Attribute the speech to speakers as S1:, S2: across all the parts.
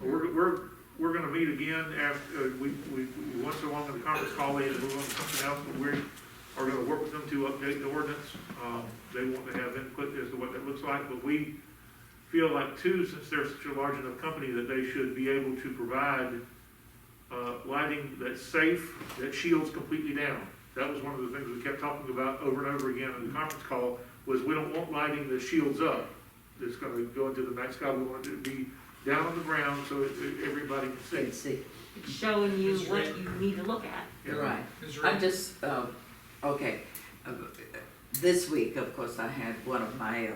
S1: we're, we're gonna meet again after, uh, we, we, we once along in the conference call, they had to move on to something else, but we are gonna work with them to update the ordinance. Um, they want to have input as to what that looks like, but we feel like too, since they're such a large enough company, that they should be able to provide, uh, lighting that's safe, that shields completely down. That was one of the things we kept talking about over and over again in the conference call, was we don't want lighting that shields up. That's gonna go into the night sky, we want it to be down on the ground so that everybody can see.
S2: Let's see,
S3: It's showing you
S4: It's
S3: what
S4: red.
S3: you need to look at.
S1: Yeah.
S2: you're right.
S4: Ms.
S2: I'm
S4: Reed,
S2: just, uh, okay, Uh, this week, of course, I had one of my, uh,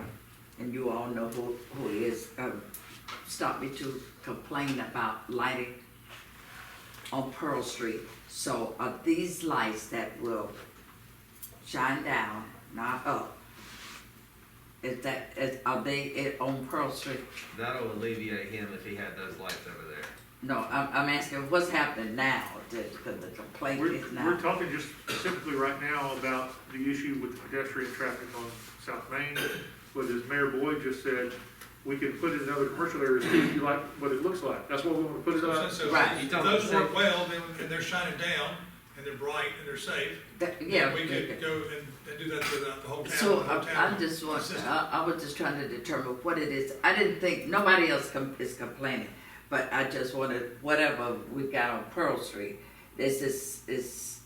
S2: and you all know who, who he is, uh, stopped me to complain about lighting on Pearl Street. So are these lights that will shine down, not up? Is that, is, are they it on Pearl Street?
S5: That'll alleviate him if he had those lights over there.
S2: No, I'm, I'm asking, what's happening now, the, the the complaint
S1: We're,
S2: is
S1: we're
S2: now?
S1: talking just specifically right now about the issue with pedestrian traffic on South Main. But as Mayor Boyd just said, we can put it in other commercial areas if you like what it looks like. That's what we want to put it on.
S4: since those-
S2: Right.
S4: if those work well, then, and they're shining down, and they're bright, and they're safe,
S2: That- Yeah.
S4: then we
S2: okay.
S4: could go and, and do that to the the whole town, the
S2: So
S4: whole
S2: I- I'm
S4: town.
S2: just want, uh,
S4: consistent.
S2: I, I was just trying to determine what it is. I didn't think, nobody else com- is complaining, but I just wanted, whatever we got on Pearl Street, this is, is,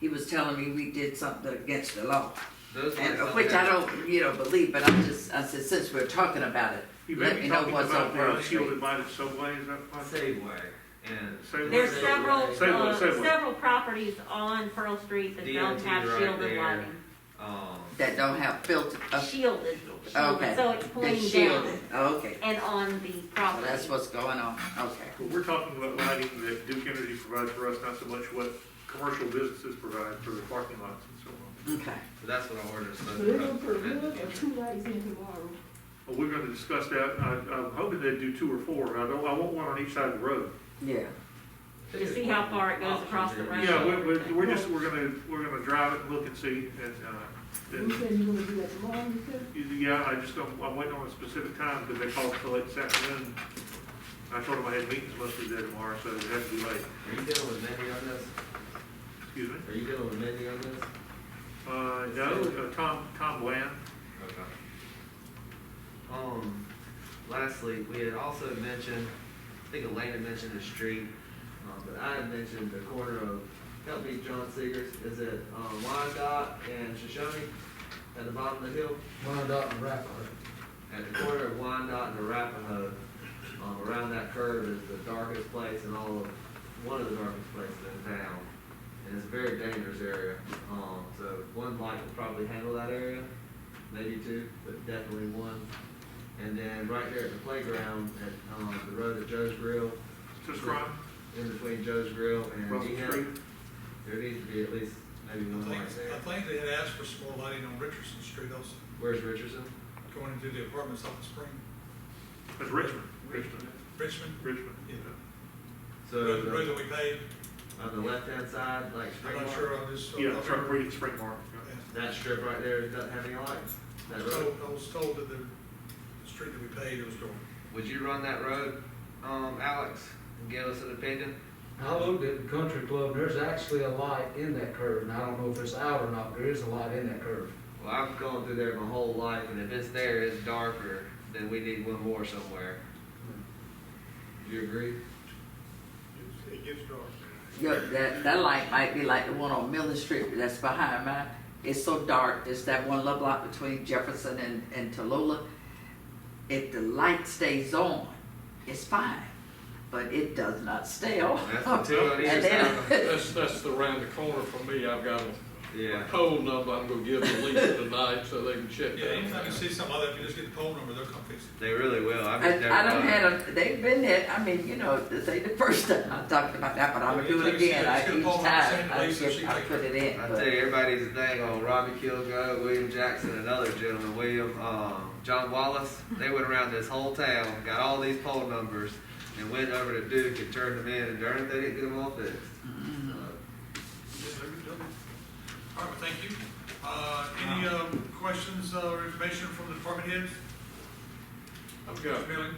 S2: he was telling me we did something against the law,
S5: Those
S2: and,
S5: lights
S3: oh,
S5: don't
S2: which I
S5: have-
S2: don't, you know, believe, but I'm just, I said, since we're talking about it,
S1: You
S2: Let
S1: may
S2: me
S1: be
S2: know
S1: talking
S2: what's
S1: about
S2: on
S1: the
S2: Pearl
S1: unshielded
S2: Street.
S1: lighted subway, is that possible?
S5: Safeway and.
S1: Safeway.
S3: There's
S1: Say
S3: several,
S1: Say what,
S3: uh,
S1: say what.
S3: several properties on Pearl Street that don't
S5: DOT
S3: have
S5: right
S3: shielded
S5: there.
S3: lighting.
S5: Um,
S2: that don't have filter, uh,
S3: Shielded,
S2: Okay.
S3: shielded, so it's
S2: they
S3: pulling
S2: shield it,
S3: down
S2: okay.
S3: and on the
S2: Well,
S3: property.
S2: that's what's going on, okay.
S1: But we're talking about lighting that Duke Energy provides for us, not so much what commercial businesses provide for their parking lots and so on.
S2: Okay,
S5: but that's what our ordinance does.
S6: They're gonna put one or two lights in tomorrow.
S1: Well, we're gonna discuss that. I, I'm hoping they do two or four. I don't, I want one on each side of the road.
S2: yeah,
S3: To see how far it goes across the road.
S1: Yeah, we're, we're, we're just, we're gonna, we're gonna drive it and look and see, and, uh,
S6: You
S1: then,
S6: said you gonna do that tomorrow, you said?
S1: yeah, I just don't, I'm waiting on a specific time, because they called so late this afternoon. I told them I had meetings most of the day tomorrow, so it had to be late,
S5: Are you dealing with Mindy on this?
S1: excuse me.
S5: Are you dealing with Mindy on this?
S1: Uh, no, uh, Tom, Tom Bland,
S5: Okay. Um, lastly, we had also mentioned, I think Elena mentioned the street, um, but I had mentioned the corner of, help me, John Seegers, is it, um, Wyandotte and Shoshone? At the bottom of the hill? Wyandotte and Arapahoe. At the corner of Wyandotte and Arapahoe, um, around that curve is the darkest place in all of, one of the darkest places in town. And it's a very dangerous area, um, so one light would probably handle that area maybe two, but definitely one. And then right there at the playground, at, um, the road at Joe's Grill,
S1: just crying,
S5: in between Joe's Grill and
S1: Russell Street.
S5: Dean, there needs to be at least maybe
S4: I
S5: one
S4: think,
S5: light
S4: I
S5: there.
S4: think they had asked for some more lighting on Richardson Street also,
S5: Where's Richardson?
S4: going into the apartments off the spring.
S1: That's Richmond, Richmond,
S4: Richmond,
S1: Richmond.
S4: yeah,
S5: So,
S4: road, road
S5: the-
S4: that we paved,
S5: on the left-hand side, like
S4: I'm
S5: straight
S4: not
S5: line,
S4: sure, uh, I'm just.
S1: Yeah,
S4: I'll
S1: Trump
S4: remember.
S1: Creek, Spring Mark.
S4: Yeah.
S5: that strip right there doesn't have any lights,
S4: I
S5: that
S4: was
S5: road.
S4: told, I was told that the, the street that we paved, it was dark.
S5: Would you run that road, um, Alex, and give us an opinion?
S7: I looked at the country club, there's actually a light in that curve, and I don't know if it's out or not, but there is a light in that curve.
S5: Well, I've gone through there my whole life, and if it's there, it's darker, then we need one more somewhere. Do you agree?
S4: It gets dark.
S2: Yeah, that, that light might be like the one on Miller Street that's behind mine. It's so dark, there's that one little block between Jefferson and, and Tallulah. If the light stays on, it's fine, but it does not stay on.
S5: That's the two on either side.
S2: And then,
S8: That's, that's the round the corner for me. I've got a
S5: Yeah.
S8: poll number I'm gonna give to Lisa tonight so they can check
S4: Yeah,
S8: that.
S4: anytime you see something like that, if you just get the phone number, they'll come fix it.
S5: They really will. I've
S2: I,
S5: just never
S2: I don't
S5: done
S2: had
S5: it.
S2: a, they've been there, I mean, you know, this ain't the first time I've talked about that, but I'm gonna do it again, I, each time, I just, I put it in,
S5: I
S2: but.
S5: tell you, everybody's thing on Robbie Kilgo, William Jackson, another gentleman, William, um, John Wallace. They went around this whole town, got all these poll numbers, and went over to Duke and turned them in, and darn it, they didn't get them all fixed.
S2: Mm-hmm.
S5: So,
S4: Yes, they would do it. All right, well, thank you. Uh, any, uh, questions uh, or information from the department heads?
S8: I've got
S4: Mr. Milling?